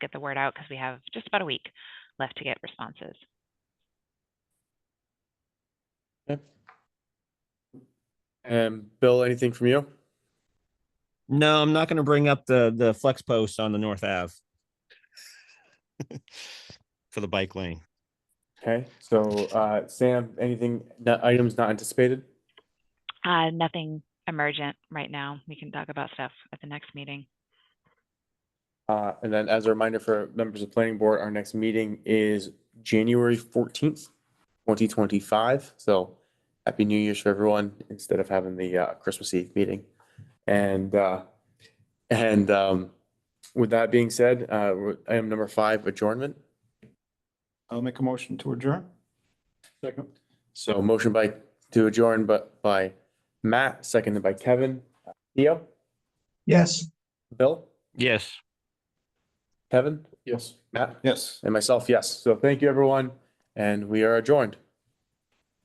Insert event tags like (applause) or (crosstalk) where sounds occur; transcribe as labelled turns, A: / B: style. A: get the word out because we have just about a week left to get responses.
B: And Bill, anything from you?
C: No, I'm not gonna bring up the, the flex post on the North Ave. (laughs) For the bike lane.
B: Okay, so, uh, Sam, anything, no- items not anticipated?
A: Uh, nothing emergent right now. We can talk about stuff at the next meeting.
B: Uh, and then as a reminder for members of planning board, our next meeting is January fourteenth, twenty twenty-five. So happy New Year's for everyone instead of having the, uh, Christmas Eve meeting. And, uh, and, um, with that being said, uh, we're- item number five, adjournment.
D: I'll make a motion to adjourn. Second.
B: So motion by, to adjourn, but by Matt, seconded by Kevin. Theo,
D: Yes.
B: Bill,
C: Yes.
B: Kevin,
D: Yes.
B: Matt,
D: Yes.
B: and myself, yes. So thank you, everyone, and we are adjourned.